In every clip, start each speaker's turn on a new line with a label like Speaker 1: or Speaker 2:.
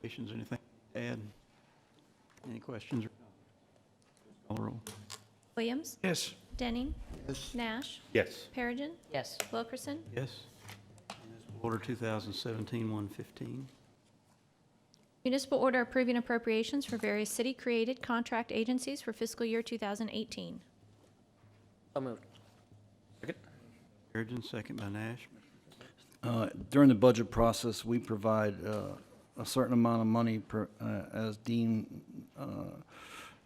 Speaker 1: Questions, anything to add? Any questions? or comments? Call the roll.
Speaker 2: Williams.
Speaker 3: Yes.
Speaker 2: Denning. Nash.
Speaker 4: Yes.
Speaker 2: Perigin.
Speaker 5: Yes.
Speaker 2: Wilkerson.
Speaker 1: Yes. Order 2017-115.
Speaker 2: Municipal order approving appropriations for various city-created contract agencies for fiscal year 2018.
Speaker 5: So moved.
Speaker 4: Second?
Speaker 1: Perigin, second by Nash.
Speaker 6: Uh, During the budget process, we provide uh, a certain amount of money per- uh, as deemed uh,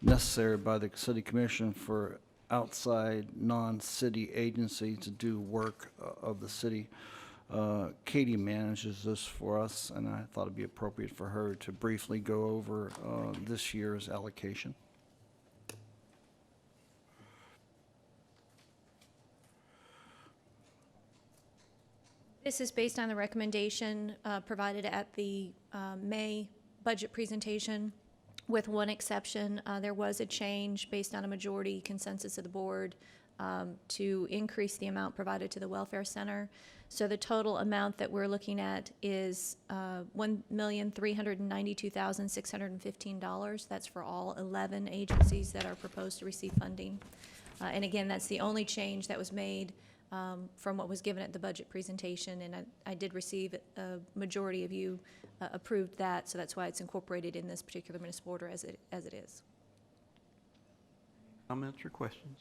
Speaker 6: necessary by the city commission for outside, non-city agencies to do work uh, of the city. Uh, Katie manages this for us, and I thought it'd be appropriate for her to briefly go over uh, this year's allocation.
Speaker 2: This is based on the recommendation uh, provided at the uh, May budget presentation, with one exception. Uh, There was a change based on a majority consensus of the board um, to increase the amount provided to the Welfare Center. So the total amount that we're looking at is uh, $1,392,615. That's for all 11 agencies that are proposed to receive funding. Uh, And again, that's the only change that was made um, from what was given at the budget presentation, and I, I did receive, a majority of you uh, approved that, so that's why it's incorporated in this particular municipal order as it, as it is.
Speaker 1: Comments or questions?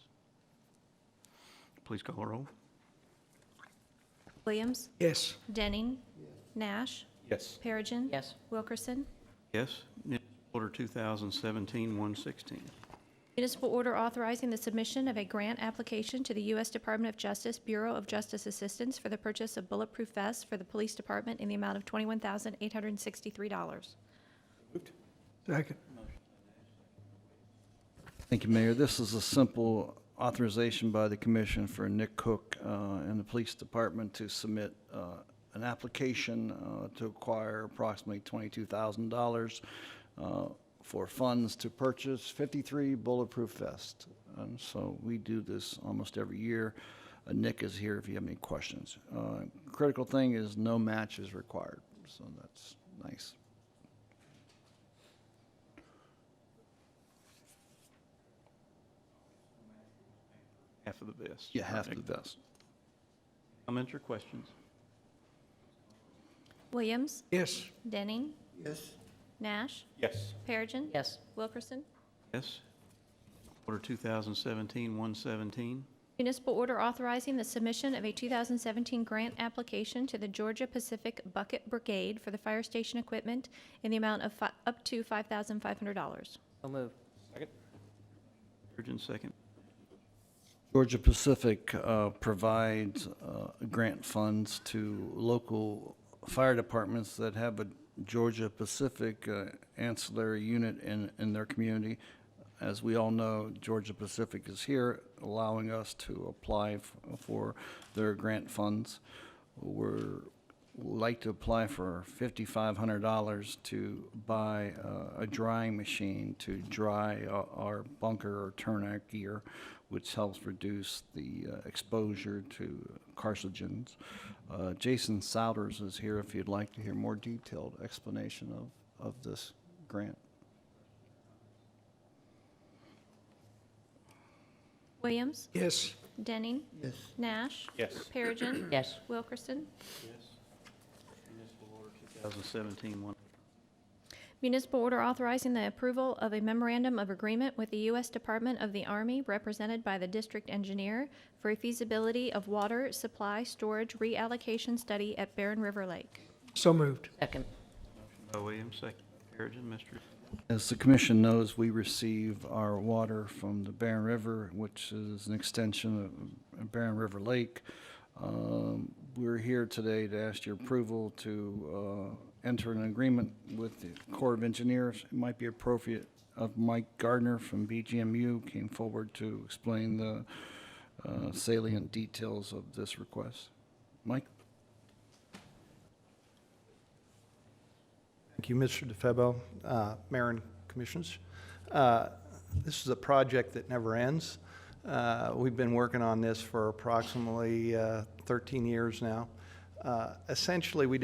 Speaker 1: Please call the roll.
Speaker 2: Williams?
Speaker 3: Yes.
Speaker 2: Denning? Nash?
Speaker 4: Yes.
Speaker 2: Perigin?
Speaker 5: Yes.
Speaker 2: Wilkerson?
Speaker 1: Yes. Order 2017-116.
Speaker 2: Municipal order authorizing the submission of a grant application to the U.S. Department of Justice Bureau of Justice Assistance for the purchase of bulletproof vests for the police department in the amount of twenty-one thousand eight hundred and sixty-three dollars.
Speaker 3: Second.
Speaker 6: Thank you, Mayor. This is a simple authorization by the commission for Nick Cook uh, and the police department to submit uh, an application uh, to acquire approximately $22,000 uh, for funds to purchase 53 bulletproof vests. And so we do this almost every year. Uh, Nick is here if you have any questions. Uh, Critical thing is no match is required, so that's nice.
Speaker 1: Half of the vest.
Speaker 6: You have to vest.
Speaker 1: Comments or questions?
Speaker 2: Williams?
Speaker 3: Yes.
Speaker 2: Denning?
Speaker 3: Yes.
Speaker 2: Nash?
Speaker 4: Yes.
Speaker 2: Perigin?
Speaker 5: Yes.
Speaker 2: Wilkerson?
Speaker 1: Yes. Order 2017-117.
Speaker 2: Municipal order authorizing the submission of a 2017 grant application to the Georgia Pacific Bucket Brigade for the fire station equipment in the amount of fi- up to $5,500.
Speaker 5: So moved.
Speaker 4: Second?
Speaker 1: Perigin, second.
Speaker 6: Georgia Pacific uh, provides uh, grant funds to local fire departments that have a Georgia Pacific uh, ancillary unit in, in their community. As we all know, Georgia Pacific is here, allowing us to apply f- for their grant funds. We're, would like to apply for $5,500 to buy uh, a drying machine to dry o- our bunker or turnout gear, which helps reduce the uh, exposure to carcinogens. Uh, Jason Souders is here if you'd like to hear more detailed explanation of, of this grant.
Speaker 2: Williams?
Speaker 3: Yes.
Speaker 2: Denning? Yes. Nash?
Speaker 4: Yes.
Speaker 2: Perigin?
Speaker 5: Yes.
Speaker 2: Wilkerson?
Speaker 1: 2017-118.
Speaker 2: Municipal order authorizing the approval of a memorandum of agreement with the U.S. Department of the Army, represented by the district engineer, for a feasibility of water supply storage reallocation study at Barren River Lake.
Speaker 3: So moved.
Speaker 5: Second.
Speaker 1: By Williams, oh second by Perigin. Mr.
Speaker 6: As the commission knows, we receive our water from the Barren River, which is an extension of Barren River Lake. Um, We're here today to ask your approval to uh, enter an agreement with the Corps of Engineers. It might be appropriate of Mike Gardner from BGMU came forward to explain the uh, salient details of this request. Mike?
Speaker 7: Thank you, Mr. DeFebo, uh, Mayor and Commissioners. Uh, This is a project that never ends. Uh, We've been working on this for approximately uh, 13 years now. Uh, Essentially, we